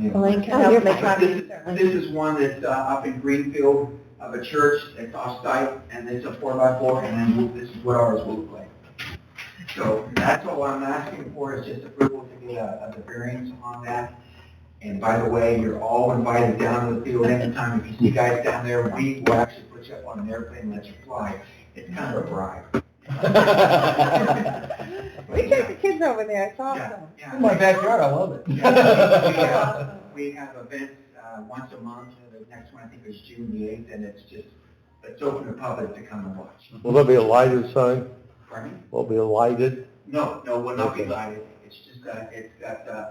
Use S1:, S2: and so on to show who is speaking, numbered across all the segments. S1: Lake,
S2: Oh, you're making-
S1: This is- this is one that's uh, up in Greenfield of a church that's off-site and it's a four by four and then this is what ours will look like. So that's all I'm asking for is just approval to get a, a variance on that. And by the way, you're all invited down to the field anytime. If you see guys down there, we will actually put you up on an airplane and let you fly. It's kind of a bribe.
S2: We take the kids over there, it's awesome.
S1: Yeah.
S3: In my backyard, I love it.
S1: Yeah.
S2: Awesome.
S1: We have events uh, once a month, and the next one I think is June the 8th, and it's just, it's open to public to come and watch.
S4: Will there be a lighted sign?
S1: Pardon me?
S4: Will it be a lighted?
S1: No, no, we'll not be lighted, it's just, uh, it's got, uh,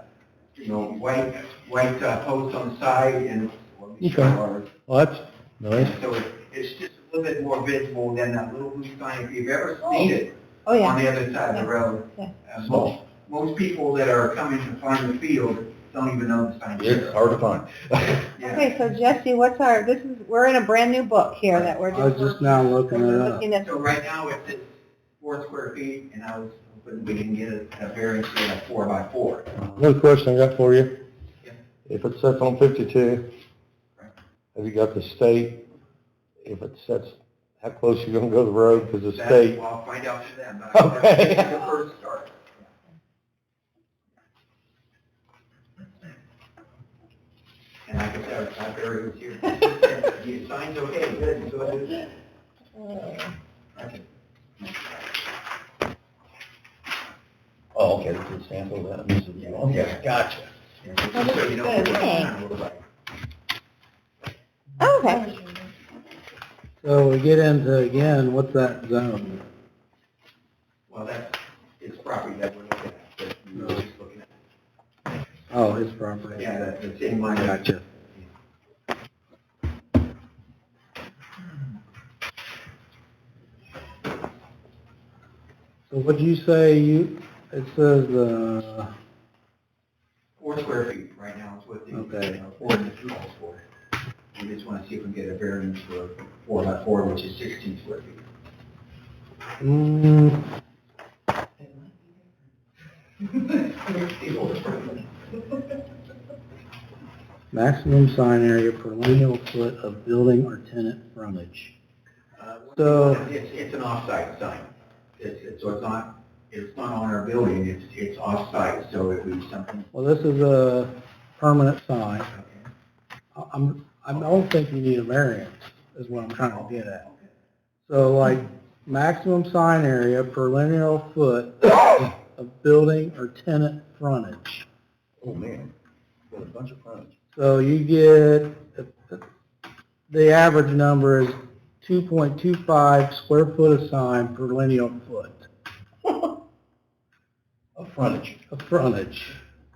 S1: you know, white, white uh, posts on the side and. Okay.
S4: Well, that's nice.
S1: So it- it's just a little bit more visible than that little blue sign, if you've ever seen it
S2: Oh, yeah.
S1: on the other side of the road.
S2: Yeah.
S1: Uh, Most, most people that are coming to find the field don't even know the sign.
S4: It's hard to find.
S1: Yeah.
S2: Okay, so Jesse, what's our, this is, we're in a brand new book here that we're just.
S5: I was just now looking it
S2: we're
S5: up.
S2: looking at-
S1: So right now, it's at four square feet, and I was hoping we can get a a variance for a four by four.
S4: Another question I got for you.
S1: Yeah.
S4: If it sets on fifty-two,
S1: Right.
S4: have you got the state? If it sets, how close you gonna go to the road? Cause the
S1: That-
S4: state,
S1: well, I'll find out for them, but I-
S4: Okay.
S1: that's the first start. And I can tell, it's not very easy. You signed okay, good, go ahead.
S2: Uh,
S1: Okay.
S3: Oh, okay, this is sample that, this is, okay, gotcha.
S1: Yeah, just so you know
S2: Well, this is
S1: what
S2: good.
S1: kind of look like.
S2: Oh, Okay.
S5: So we get into again, what's that zone?
S1: Well, that's, it's property that we're looking at, that we we're just looking at.
S5: Oh, it's property.
S1: Yeah, that- that's in my.
S5: Gotcha. So what'd you say you, it says, uh,
S1: Four square feet right now is what the
S5: Okay.
S1: uh, ordinance calls for. We just want to see if we can get a variance for four by four, which is sixteen square feet.
S5: mm, maximum sign area per lineal foot of building or tenant frontage.
S1: Uh,
S5: So-
S1: It's, it's an off-site sign. It's, it's, so it's not, it's not on our building, it's, it's off-site, so it would be something.
S5: Well, this is a permanent sign.
S1: okay.
S5: I- I'm, I don't think you need a variance, is what I'm trying to get at.
S1: Okay.
S5: So like maximum sign area per linear foot of building or tenant frontage.
S3: Oh, man, got a bunch of frontage.
S5: So you get, the average number is 2.25 square foot of sign per linear foot
S3: Of frontage.
S5: of frontage.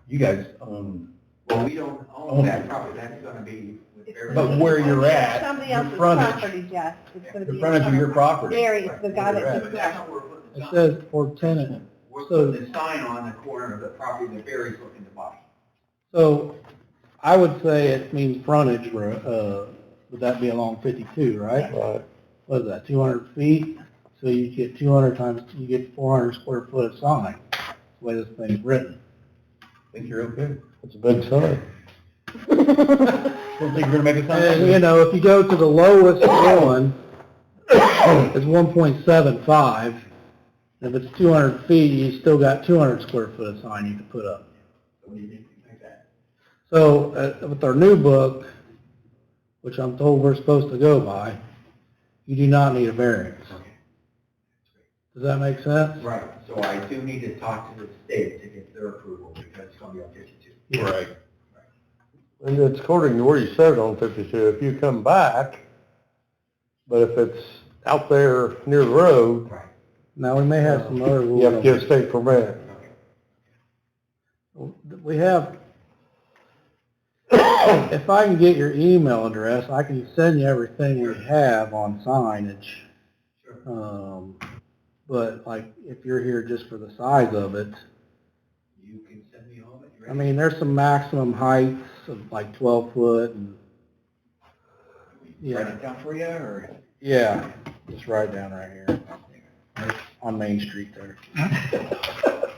S3: You guys own,
S1: Well, we don't own that property, that's gonna be. with variance.
S3: but where you're at,
S2: Somebody
S3: your
S2: else's
S3: frontage,
S2: property, Jess. It's gonna
S3: the
S2: be
S3: frontage of your property.
S2: Gary, the guy
S3: Where you're at.
S2: that just
S1: That's
S2: left.
S1: not where we're putting the
S5: It
S1: sign.
S5: says for tenant.
S1: We're
S5: so-
S1: putting the sign on the corner of the property that Barry's looking to buy.
S5: So I would say it means frontage, ro- uh, would that be along 52, right?
S4: right,
S5: what is that, 200 feet? So you get 200 times, you get 400 square foot of sign, That's the way this thing's written.
S3: think you're okay?
S4: it's a big sign.
S3: Don't think you're gonna make a
S5: And, you
S3: sign?
S5: know, if you go to the lowest one, it's 1.75. If it's 200 feet, you still got 200 square foot of sign you can put up.
S1: So we need to make that.
S5: So uh, with our new book, which I'm told we're supposed to go by, you do not need a variance. Does that make sense?
S1: Right, so I do need to talk to the state to get their approval because it's gonna be on fifty-two.
S3: Right.
S4: And it's according to where you set it on fifty-two. If you come back, but if it's out there near the road,
S1: Right.
S5: Now, we may have some other rules.
S4: you have to
S5: on
S4: get a state permit.
S1: Okay.
S5: We have, if I can get your email address, I can send you everything we have on signage.
S1: Sure.
S5: Um, but like, if you're here just for the size of it,
S1: You can send me home at your.
S5: I mean, there's some maximum heights of like twelve foot and,
S1: Write
S5: yeah,
S1: it down for you or?
S5: yeah, just right down right here on Main Street there.